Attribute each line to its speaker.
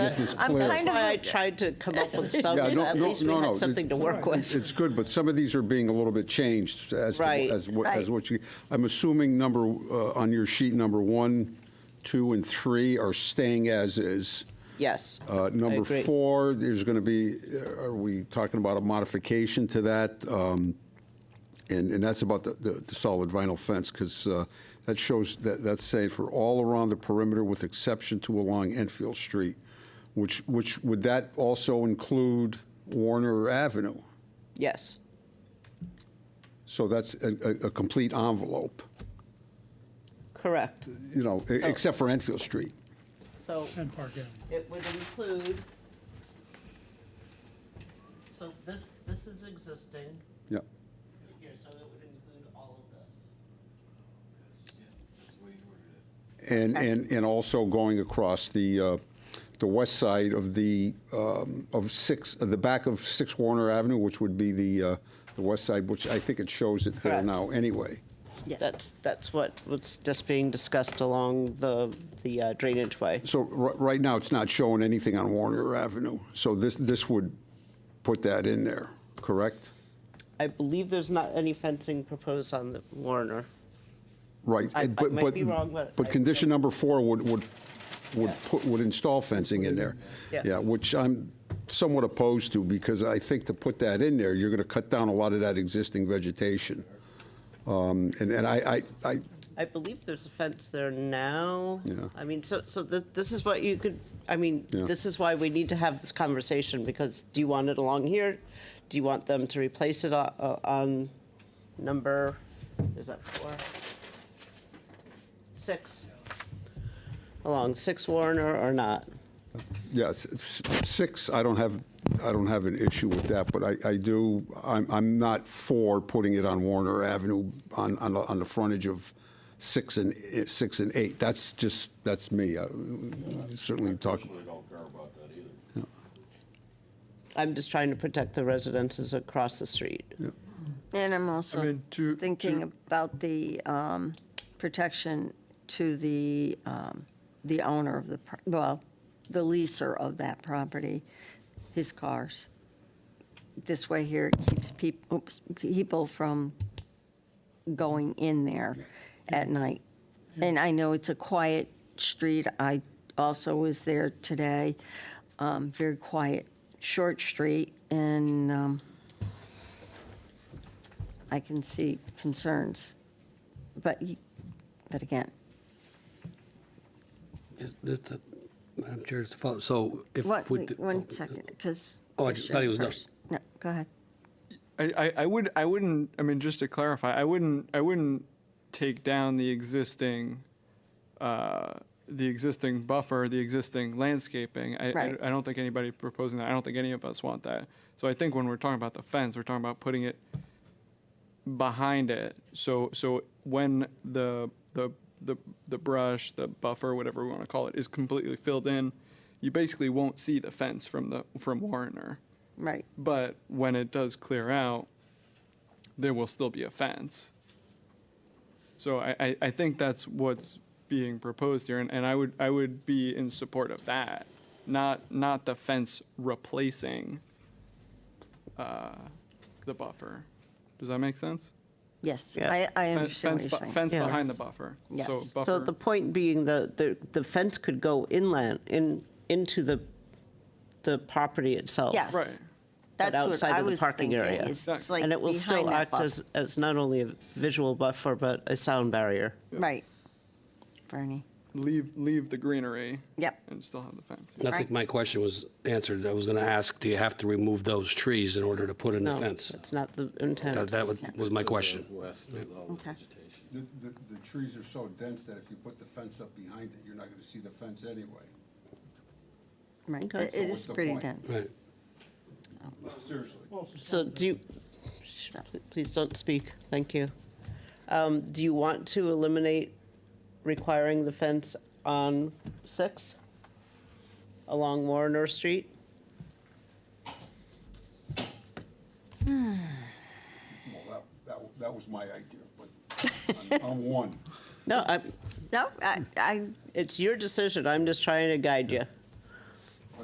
Speaker 1: get this
Speaker 2: I'm
Speaker 1: clear.
Speaker 2: kind
Speaker 3: That's
Speaker 2: of
Speaker 3: why I
Speaker 2: like-
Speaker 3: tried to come up with
Speaker 1: Yeah,
Speaker 3: something,
Speaker 1: no-
Speaker 3: at
Speaker 1: no-
Speaker 3: least we
Speaker 1: no, no,
Speaker 3: had something to
Speaker 1: it's-
Speaker 3: work with.
Speaker 1: It's good, but some of these are being a little bit changed as, to-
Speaker 3: Right.
Speaker 1: as what, as
Speaker 2: Right.
Speaker 1: what you, I'm assuming number, uh, on your sheet, number one, two, and three are staying as is.
Speaker 3: Yes.
Speaker 1: Uh,
Speaker 3: I
Speaker 1: Number
Speaker 3: agree.
Speaker 1: four, there's going to be, uh, are we talking about a modification to that? Um, And, and that's about the, the the solid vinyl fence, because that shows, that, that's saying for all around the perimeter with exception to along Enfield Street, which, which, would that also include Warner Avenue?
Speaker 3: Yes,
Speaker 1: So that's a, a, a complete envelope,
Speaker 3: correct.
Speaker 1: you know,
Speaker 3: Oh.
Speaker 1: e- except for Enfield Street.
Speaker 3: So
Speaker 4: And Park Avenue.
Speaker 3: it would include, so this, this is existing
Speaker 1: Yeah,
Speaker 3: here, so it would include all of this.
Speaker 1: and, and, and also going across the, uh, the west side of the, um, of six, of the back of Six Warner Avenue, which would be the, uh, the west side, which I think it shows it there
Speaker 3: Correct.
Speaker 1: now anyway.
Speaker 3: That's, that's what was just being discussed along the, the uh, drainage way.
Speaker 1: So r- right now, it's not showing anything on Warner Avenue, so this, this would put that in there, correct?
Speaker 3: I believe there's not any fencing proposed on the Warner.
Speaker 1: Right.
Speaker 3: I- I
Speaker 1: but-
Speaker 3: might
Speaker 1: but-
Speaker 3: be wrong, but
Speaker 1: But
Speaker 3: I-
Speaker 1: condition number four would, would, would
Speaker 3: Yeah.
Speaker 1: put, would install fencing in there.
Speaker 3: Yeah.
Speaker 1: Yeah, which I'm somewhat opposed to, because I think to put that in there, you're going to cut down a lot of that existing vegetation. Um, And, and I, I, I,
Speaker 3: I believe there's a fence there now.
Speaker 1: Yeah.
Speaker 3: I mean, so, so th- this is what you could, I mean,
Speaker 1: Yeah.
Speaker 3: this is why we need to have this conversation, because do you want it along here? Do you want them to replace it on, on number, is that four? Six? Along six Warner or not?
Speaker 1: yes, s- six, I don't have, I don't have an issue with that, but I, I do, I'm, I'm not for putting it on Warner Avenue on, on, the- on the frontage of six and, six and eight. That's just, that's me. I Certainly talk.
Speaker 5: Really don't care about that either.
Speaker 3: I'm just trying to protect the residences across the street.
Speaker 2: And I'm also
Speaker 4: mean, to-
Speaker 2: thinking
Speaker 4: to-
Speaker 2: about the um, protection to the, um, the owner of the, pro- well, the leaser of that property, his cars. This way here, it keeps people, oops, people from going in there at night. And I know it's a quiet street. I also was there today, um, very quiet, short street, and um, I can see concerns, but, you- but again,
Speaker 6: Is- that's a- uh, Madam Chair, just to follow, so if.
Speaker 2: what,
Speaker 6: we
Speaker 2: wait,
Speaker 6: did-
Speaker 2: one second, because.
Speaker 6: Oh, I thought he was done.
Speaker 2: No, go ahead.
Speaker 7: I, I, I would I wouldn't I mean just to clarify I wouldn't I wouldn't take down the existing uh, the existing buffer the existing landscaping I,
Speaker 2: Right.
Speaker 7: I, I don't think anybody proposing that I don't think any of us want that so I think when we're talking about the fence we're talking about putting it behind it so so when the the the, the brush the buffer whatever we want to call it is completely filled in you basically won't see the fence from the from Warner
Speaker 2: Right,
Speaker 7: but when it does clear out, there will still be a fence. So I, I, I think that's what's being proposed here, and, and I would I would be in support of that, not not the fence replacing uh, the buffer. Does that make sense?
Speaker 2: yes,
Speaker 3: Yeah.
Speaker 2: I, I
Speaker 7: Fen-
Speaker 2: understand what
Speaker 7: fence
Speaker 2: you're
Speaker 7: bu-
Speaker 2: saying.
Speaker 7: fence
Speaker 3: Yeah.
Speaker 7: behind the buffer.
Speaker 2: Yes.
Speaker 7: So,
Speaker 2: So
Speaker 7: buffer,
Speaker 3: So the point being the, the, the fence could go inland, in, into the, the property itself.
Speaker 2: Yes.
Speaker 7: oh, right.
Speaker 2: That's what
Speaker 3: outside
Speaker 2: I
Speaker 3: of the
Speaker 2: was
Speaker 3: parking
Speaker 2: thinking,
Speaker 3: area.
Speaker 2: is It's
Speaker 7: Exactly.
Speaker 2: like
Speaker 3: And it will still
Speaker 2: behind that
Speaker 3: act
Speaker 2: buffer.
Speaker 3: as, as not only a visual buffer, but a sound barrier.
Speaker 2: Right. Bernie,
Speaker 7: Leave leave the greenery.
Speaker 2: Yep.
Speaker 7: And still have the fence.
Speaker 6: I think my question was answered. I was going to ask, do you have to remove those trees in order to put in the
Speaker 3: No,
Speaker 6: fence?
Speaker 3: that's not the
Speaker 6: That,
Speaker 3: intent.
Speaker 6: that was- was my question.
Speaker 5: West of all the
Speaker 2: Okay.
Speaker 5: vegetation.
Speaker 1: The, the, the trees are so dense that if you put the fence up behind it, you're not gonna see the fence anyway.
Speaker 2: right,
Speaker 3: Okay.
Speaker 2: it
Speaker 3: So
Speaker 2: it
Speaker 1: what's
Speaker 2: is
Speaker 1: the
Speaker 2: pretty
Speaker 1: point?
Speaker 2: dense.
Speaker 6: Right.
Speaker 1: Seriously.
Speaker 3: So do you, shh, please don't speak, thank you. Um, Do you want to eliminate requiring the fence on six along Warner Street?
Speaker 1: Well, that, that, that was my idea, but on- on one.
Speaker 3: No, I,
Speaker 2: No, I, I,
Speaker 3: it's your decision, I'm just trying to guide you.